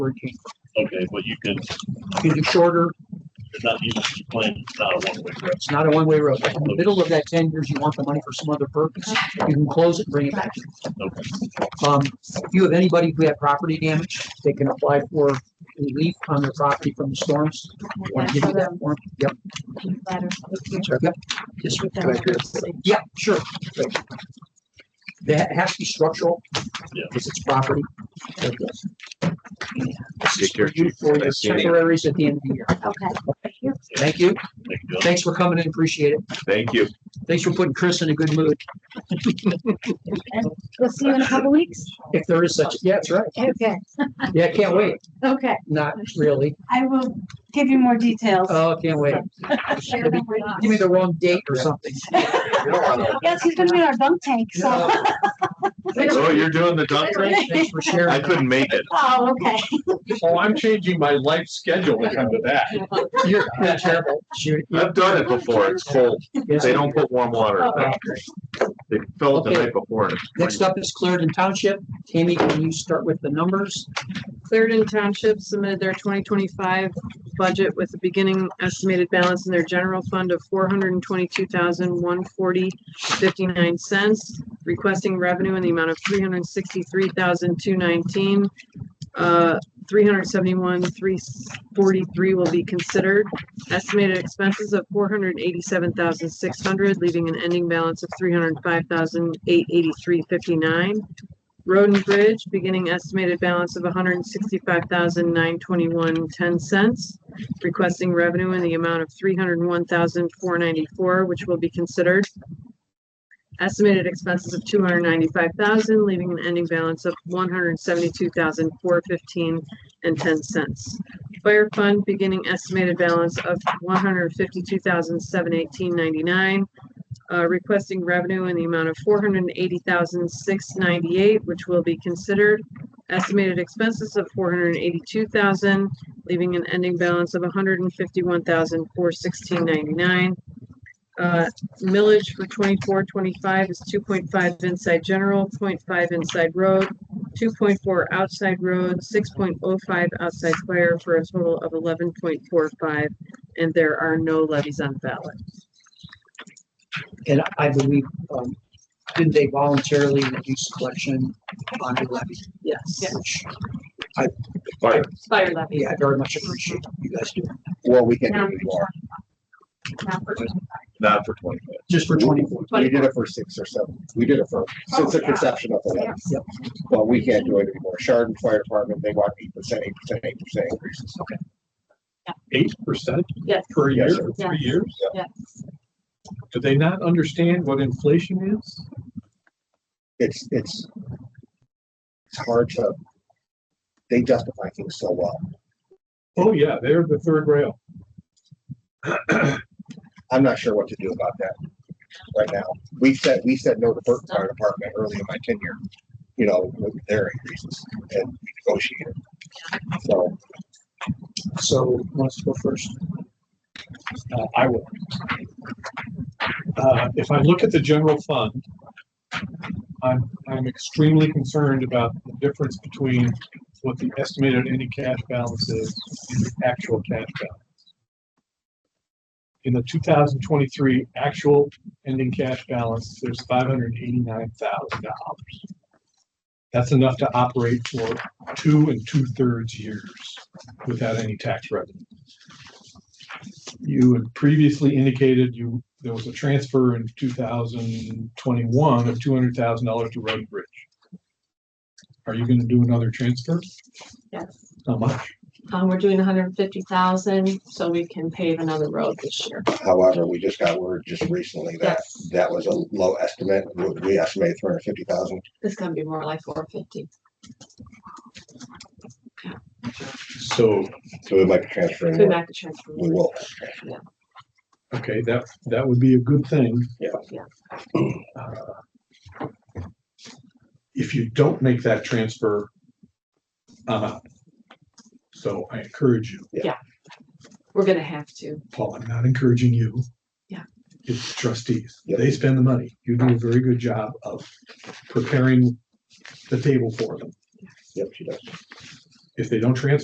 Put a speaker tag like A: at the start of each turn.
A: where it came from.
B: Okay, well, you could,
A: You can do shorter,
B: you're not, you you plan, it's not a one-way road.
A: it's not a one-way road. In the middle of that ten years, you want the money for some other purpose, you can close it, and bring it back.
B: Okay,
A: Um, if you have anybody who had property damage, they can apply for relief on their property from the storms. Want to give you that form? Yep, yep. Yes, sir. Yeah, sure. That has to be structural
B: yeah.
A: because it's property. Take
C: Take care, Chief.
A: For your
C: Nice seeing you.
A: temporaries at the end of the year.
D: Okay.
A: Thank you.
B: Thank you.
A: Thanks for coming in. Appreciate it.
C: Thank you.
A: Thanks for putting Chris in a good mood.
D: We'll see you in a couple weeks.
A: If there is such, yeah, that's right.
D: Okay,
A: Yeah, can't wait.
D: okay.
A: Not really.
D: I will give you more details.
A: Oh, can't wait. Give me the wrong date or something.
C: Oh,
D: Yes, he's gonna be in our bunk tank, so.
A: No. Thanks
C: Oh,
A: for-
C: you're doing the dump truck?
A: Thanks for
C: I
A: sharing.
C: couldn't make it.
D: Oh, okay.
E: Oh, I'm changing my life schedule to come to that.
A: You're you're terrible. Shoot.
C: I've done it before. It's cold. They don't put warm water. in it. They fill it the night before. and it's
A: Next up is Clarendon Township. Tammy, can you start with the numbers?
F: Clarendon Township submitted their twenty twenty-five budget with a beginning estimated balance in their general fund of four hundred and twenty-two thousand, one forty, fifty-nine cents, requesting revenue in the amount of three hundred and sixty-three thousand, two nineteen. Uh, three hundred seventy-one, three forty-three will be considered. Estimated expenses of four hundred and eighty-seven thousand, six hundred, leaving an ending balance of three hundred and five thousand, eight eighty-three, fifty-nine. Road and Bridge, beginning estimated balance of 165,921.10 hundred and sixty-five thousand nine twenty-one ten cents. Requesting revenue in the amount of three hundred and one thousand four ninety-four, which will be considered. Estimated expenses of two hundred ninety-five thousand, leaving an ending balance of one hundred seventy-two thousand four fifteen and ten cents. Fire Fund, beginning estimated balance of one hundred fifty-two thousand seven eighteen ninety-nine uh, requesting revenue in the amount of four hundred and eighty thousand, six ninety-eight, which will be considered. Estimated expenses of four hundred and eighty-two thousand, leaving an ending balance of 151,416.99. hundred and fifty-one thousand, four sixteen ninety-nine. Uh, millage for 24-25 is two point five inside general, 0.5 inside road, two point four outside road, six point oh five outside fire, for a total of eleven point four five. And there are no levies on ballot.
A: And I believe, um, didn't they voluntarily reduce collection on the levy?
F: Yes.
A: Which,
C: fire.
F: Fire levy.
A: yeah, I very much appreciate you guys doing.
E: Well, we can
D: Now
E: do
D: for
E: more.
D: 25.
C: Not for twenty-five.
A: Just for twenty-four.
E: We did it for six or seven. We did it for, since the conception of the levy.
A: Yep.
E: Well, we can't do it anymore. Chardon Fire Department, they want eight percent, eight percent, eight percent increases.
G: eight percent
D: Yes.
G: per year,
E: Yes,
G: for
D: sir.
G: three years?
D: Yes.
G: Do they not understand what inflation is?
E: It's, it's, it's hard to, they justify things so well.
G: Oh, yeah, they're the third rail.
E: I'm not sure what to do about that right now. We said, we said no to Burton Fire Department early in my tenure, you know, with their increases and we negotiated. So
A: So, who wants to go first?
G: Uh, I will. Uh, if I look at the general fund, I'm, I'm extremely concerned about the difference between what the estimated ending cash balance is and the actual cash balance. In the two thousand twenty-three actual ending cash balance, there's five hundred eighty-nine thousand dollars. That's enough to operate for two and two-thirds years without any tax revenue. You had previously indicated you, there was a transfer in two thousand twenty-one of two hundred thousand dollars to Road and Bridge. Are you gonna do another transfer?
H: Yes,
G: How much?
H: um, we're doing hundred and fifty thousand, so we can pave another road this year.
E: however, we just got word just recently that
H: Yes,
E: that was a low estimate. We- We estimated three hundred fifty thousand.
H: it's gonna be more like four fifty.
G: So,
E: So we might be transferring.
H: Could
E: more.
H: not transfer.
E: We will.
G: okay, that, that would be a good thing.
E: Yeah.
H: Yeah.
G: Uh, If you don't make that transfer, I'm out. So I encourage you,
H: We're gonna have to.
G: Paul, I'm not encouraging you.
H: Yeah.
G: It's trustees.
E: Yeah.
G: They spend the money. You do a very good job of preparing the table for them.
E: Yep, she does.
G: If they don't transfer